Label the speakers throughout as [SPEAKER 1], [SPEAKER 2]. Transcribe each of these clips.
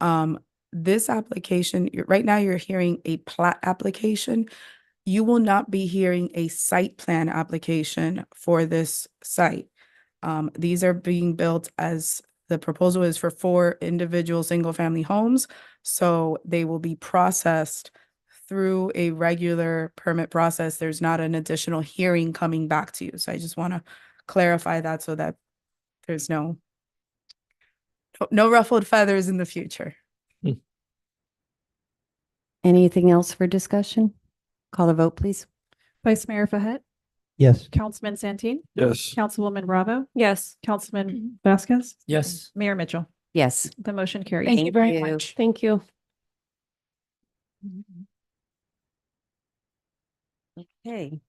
[SPEAKER 1] Um, this application, you're- right now you're hearing a plat application. You will not be hearing a site plan application for this site. Um, these are being built as, the proposal is for four individual, single-family homes. So they will be processed through a regular permit process. There's not an additional hearing coming back to you. So I just want to clarify that so that there's no no- no ruffled feathers in the future.
[SPEAKER 2] Anything else for discussion? Call the vote, please.
[SPEAKER 3] Vice Mayor Fahet,
[SPEAKER 4] Yes.
[SPEAKER 3] Councilman Santeen,
[SPEAKER 5] Yes.
[SPEAKER 3] Councilwoman Bravo,
[SPEAKER 6] Yes.
[SPEAKER 3] Councilman Vasquez,
[SPEAKER 5] Yes.
[SPEAKER 3] Mayor Mitchell.
[SPEAKER 2] Yes.
[SPEAKER 3] The motion carries.
[SPEAKER 6] Thank you very
[SPEAKER 2] you.
[SPEAKER 6] much. Thank you.
[SPEAKER 2] Okay.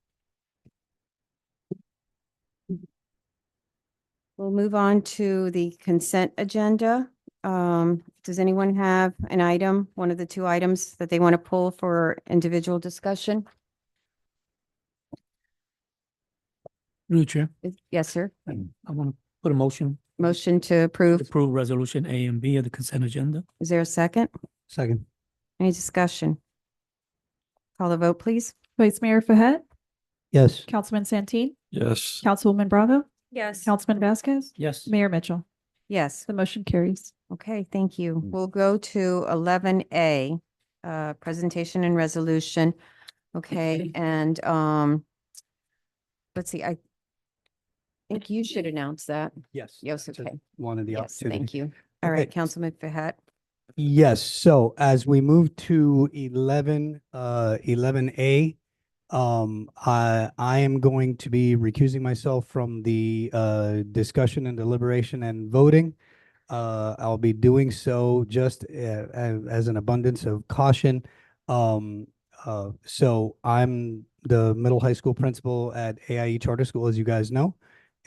[SPEAKER 2] We'll move on to the consent agenda. Um, does anyone have an item, one of the two items that they want to pull for individual discussion?
[SPEAKER 7] New Chair,
[SPEAKER 2] Is- Yes, sir.
[SPEAKER 5] Hmm.
[SPEAKER 7] I want to put a motion
[SPEAKER 2] Motion to
[SPEAKER 7] to
[SPEAKER 2] approve.
[SPEAKER 7] approve resolution A and B of the consent agenda.
[SPEAKER 2] Is there a second?
[SPEAKER 4] Second.
[SPEAKER 2] Any discussion? Call the vote, please.
[SPEAKER 3] Vice Mayor Fahet,
[SPEAKER 4] Yes.
[SPEAKER 3] Councilman Santeen,
[SPEAKER 5] Yes.
[SPEAKER 3] Councilwoman Bravo,
[SPEAKER 6] Yes.
[SPEAKER 3] Councilman Vasquez,
[SPEAKER 7] Yes.
[SPEAKER 3] Mayor Mitchell.
[SPEAKER 2] Yes.
[SPEAKER 3] The motion carries.
[SPEAKER 2] Okay, thank you. We'll go to eleven A, uh, presentation and resolution. Okay, and, um, let's see, I think you should announce that.
[SPEAKER 4] Yes.
[SPEAKER 2] Yes,
[SPEAKER 4] Just
[SPEAKER 2] okay.
[SPEAKER 4] Wanted the
[SPEAKER 2] Yes,
[SPEAKER 4] opportunity.
[SPEAKER 2] thank you. All right,
[SPEAKER 4] Okay.
[SPEAKER 2] Councilman Fahet.
[SPEAKER 4] Yes, so as we move to eleven, uh, eleven A, um, I, I am going to be recusing myself from the, uh, discussion and deliberation and voting. Uh, I'll be doing so just, uh, a- as an abundance of caution. Um, uh, so I'm the middle high school principal at AIE Charter School, as you guys know.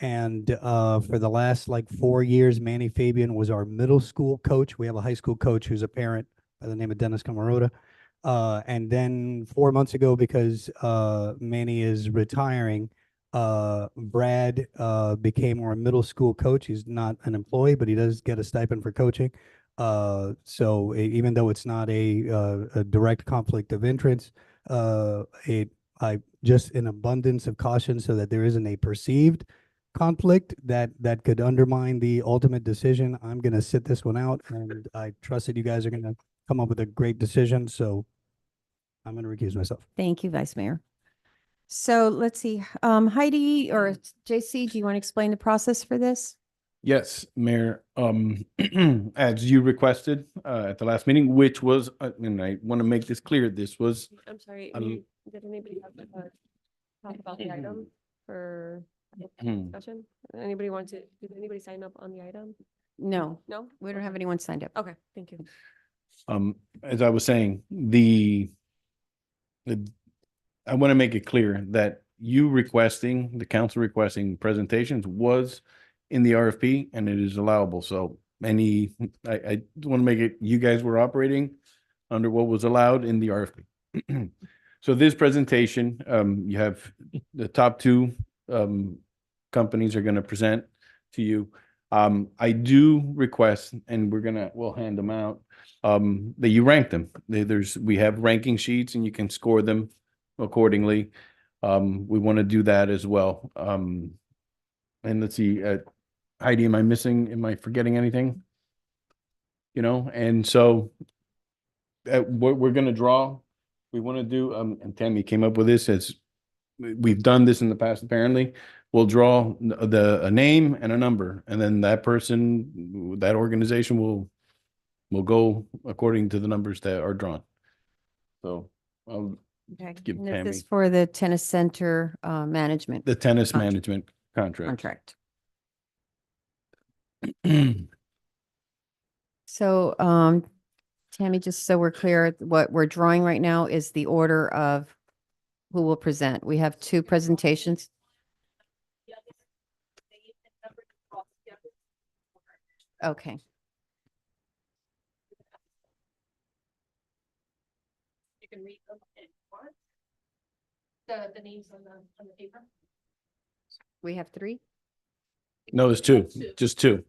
[SPEAKER 4] And uh, for the last like four years, Manny Fabian was our middle school coach. We have a high school coach who's a parent by the name of Dennis Camarota. Uh, and then four months ago, because uh, Manny is retiring, uh, Brad uh, became our middle school coach. He's not an employee, but he does get a stipend for coaching. Uh, so e- even though it's not a, uh, a direct conflict of interest, uh, it I just in abundance of caution so that there isn't a perceived conflict that that could undermine the ultimate decision. I'm gonna sit this one out and I trust that you guys are gonna come up with a great decision, so I'm gonna recuse myself.
[SPEAKER 2] Thank you, Vice Mayor. So let's see, um, Heidi or JC, do you want to explain the process for this?
[SPEAKER 8] Yes, Mayor, um, as you requested, uh, at the last meeting, which was, uh, and I want to make this clear, this was,
[SPEAKER 6] I'm sorry.
[SPEAKER 8] Um,
[SPEAKER 6] you- Did anybody have uh, talk about the item for
[SPEAKER 8] hmm,
[SPEAKER 6] discussion? Anybody want to, did anybody sign up on the item?
[SPEAKER 2] No,
[SPEAKER 6] No?
[SPEAKER 2] we don't
[SPEAKER 6] Okay.
[SPEAKER 2] have anyone signed up.
[SPEAKER 6] Okay, thank you.
[SPEAKER 8] um, as I was saying, the the- I want to make it clear that you requesting, the council requesting presentations was in the RFP and it is allowable. So any, I, I want to make it, you guys were operating under what was allowed in the RFP. So this presentation, um, you have the top two, um, companies are going to present to you. Um, I do request, and we're gonna, we'll hand them out, um, that you rank them. There- There's, we have ranking sheets and you can score them accordingly. Um, we want to do that as well. Um, and let's see, uh, Heidi, am I missing, am I forgetting anything? You know, and so uh, what we're gonna draw, we want to do, um, and Tammy came up with this as we- we've done this in the past apparently. We'll draw n- the, a name and a number, and then that person, that organization will will go according to the numbers that are drawn. So, um,
[SPEAKER 2] Okay.
[SPEAKER 8] Give
[SPEAKER 2] And this is
[SPEAKER 8] Tammy-
[SPEAKER 2] for the tennis center, uh, management
[SPEAKER 8] the tennis
[SPEAKER 2] Contract.
[SPEAKER 8] management contract.
[SPEAKER 2] contract. So, um, Tammy, just so we're clear, what we're drawing right now is the order of who will present. We have two presentations. Okay.
[SPEAKER 6] You can read them in one. The, the names on the, on the paper?
[SPEAKER 2] We have three?
[SPEAKER 8] No, there's two, just two.